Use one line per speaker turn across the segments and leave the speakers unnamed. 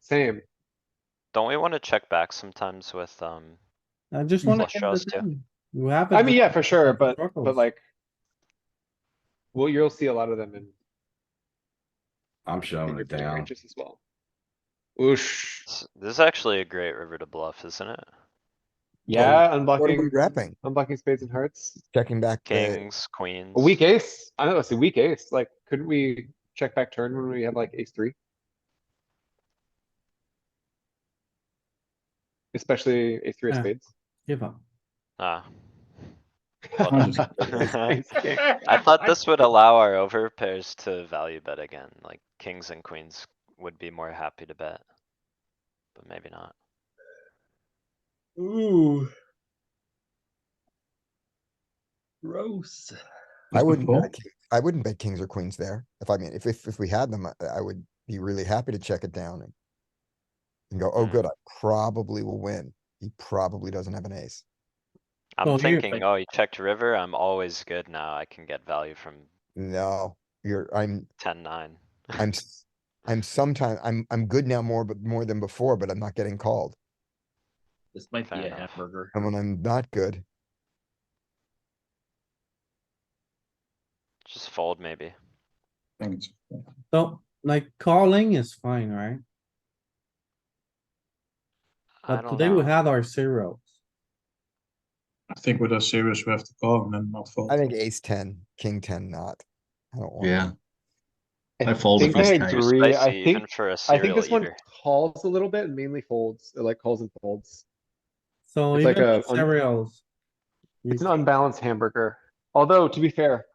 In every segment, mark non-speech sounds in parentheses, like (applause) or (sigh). Same.
Don't we wanna check back sometimes with, um,
I just wanna.
Flush
get
draws
the
too.
turn. You have.
I
it
mean,
with
yeah, for sure, but, but
circles.
like. Well, you'll see a lot of them in.
I'm
in
showing
your
it
bigger
down.
ranges As well. Oosh,
s- this is actually a great river to bluff, isn't it?
yeah,
What are we
unblocking,
wrapping?
unblocking spades and hearts.
Checking back the,
Kings, queens.
A weak ace, I don't know, it's a weak ace, like, couldn't we check back turn when we have like ace three? Especially ace three of
Yeah.
spades. (laughs)
(laughs)
Give up.
Ah. Well done.
Ace king.
I thought this would allow our over pairs to value bet again, like kings and queens would be more happy to bet. But maybe not.
Ooh. Gross.
I
Just a
wouldn't, bet
fold.
a king- I wouldn't bet kings or queens there. If I mean, if, if, if we had them, I- I would be really happy to check it down and. And go, oh,
Mm.
good, I probably will win. He probably doesn't have an ace.
Well,
I'm
here,
thinking,
like-
oh, you checked river, I'm always good now, I can get value from
No, you're, I'm,
ten nine.
I'm, s- I'm sometime, I'm, I'm good now more, but more than before, but I'm not getting called.
This might be
Fair
a
enough.
hamburger.
And when I'm not good,
Just fold maybe.
I think it's-
So, like calling is fine, right?
I
But
don't
today we
know.
had our zeros.
I think with us serious, we have to call and then not fold.
I think ace ten, king ten, not. I don't want.
Yeah,
that.
I
folded
think
this
I
time. Too
agree. I
Spicy even
think,
for a
I think
serial
this one
eater.
calls a little bit and mainly folds, it like calls and folds.
So
It's like
even the
a un-
cereals. you-
It's an unbalanced hamburger, although to be fair.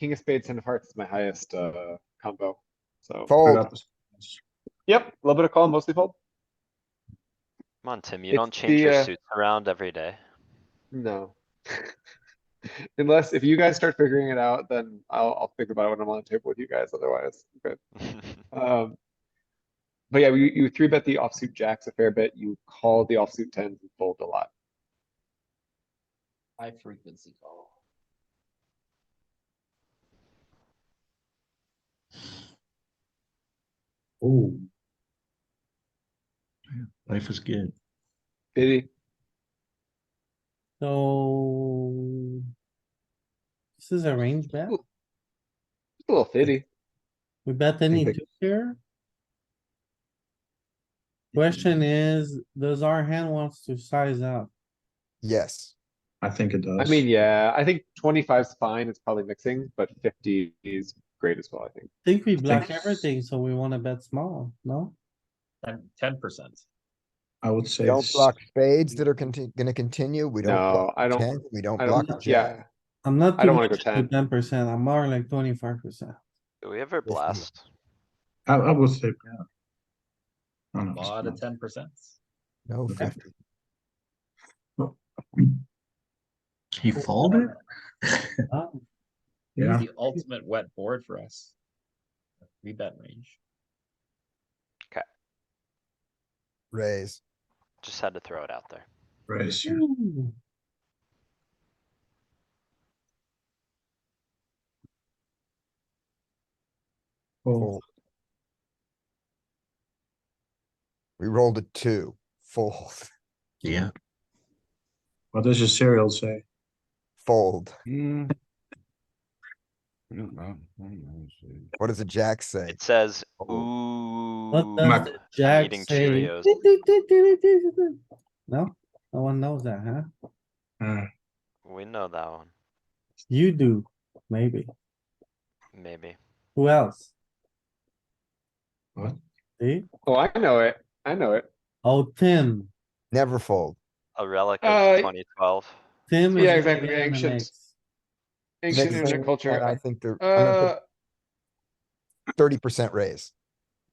King of spades, ten of hearts is my highest, uh, combo, so.
Fold,
Yep, a little bit of call, mostly fold.
Come on, Tim, you
It's
don't change your
the, uh,
suits around every day.
No. (laughs) Unless if you guys start figuring it out, then I'll I'll think about it when I'm on the table with you guys. Otherwise, I'm good.
(laughs)
Um, but yeah, you you three bet the offsuit jacks a fair bit. You call the offsuit tens and fold a lot.
High frequency call.
Oh. Life is good.
Biddy,
So. This is a range bet.
just a little fitty.
We bet any
think-
two here. Question is, does our hand wants to size up?
yes.
I think it does.
I mean, yeah, I think 25's fine. It's probably mixing, but 50 is great as well. I think.
I think we block
Thanks.
everything, so we wanna bet small, no?
Ten, ten percent.
I would say.
Don't
it's-
block spades that are conti- gonna continue. We don't. block
No, I don't.
ten, We don't
I
block
don't.
the jack.
Yeah,
I'm not.
I
too
don't wanna
much
go
to
10.
Ten percent, I'm more like twenty-five percent.
Do we ever
you-
blast?
I, I would say, yeah. No,
A
no, it's
lot of
not.
ten percent.
No
Okay.
fifty.
He folded? Yeah,
The ultimate wet board for us. We bet range.
Raise.
Just had to throw it out there.
raise. yeah.
Ooh.
Fold.
Fold. We rolled a two. Fold. (laughs)
Yeah,
What does your serial say?
Fold.
Hmm. I don't know. I don't know, see.
What does a jack say?
It says,
What
ooh.
does the jack
eating
say?
Cheerios.
No, no one knows that, huh?
Uh,
We know that one,
You do, maybe.
maybe.
Who else?
What?
See?
Oh, I know it. I know it.
Oh, Tim.
Never fold.
A relic
Uh,
of twenty twelve.
Tim. is
Yeah,
a
exactly,
man in the
ancient.
mix.
Ancient internet
Next thing,
culture.
I
I-
think they're
Uh,
thirty percent raise.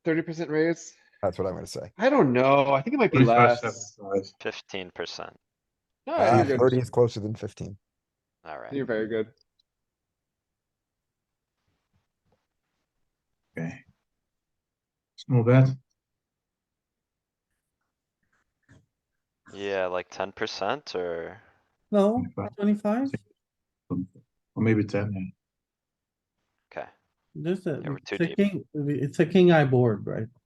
thirty percent raise.
That's what I'm gonna say.
I don't know. I think it might be
25,
less.
75.
Fifteen percent.
No,
Ah,
oh, you're
Thirty
good.
is closer than fifteen.
You're
Alright,
very good.
Okay. It's not bad.
yeah, like ten percent or,
No, twenty-five,
Or maybe ten, yeah.
okay,
just a,
Yeah, we're
it's
too
a
deep.
king, it's a king eye board, right?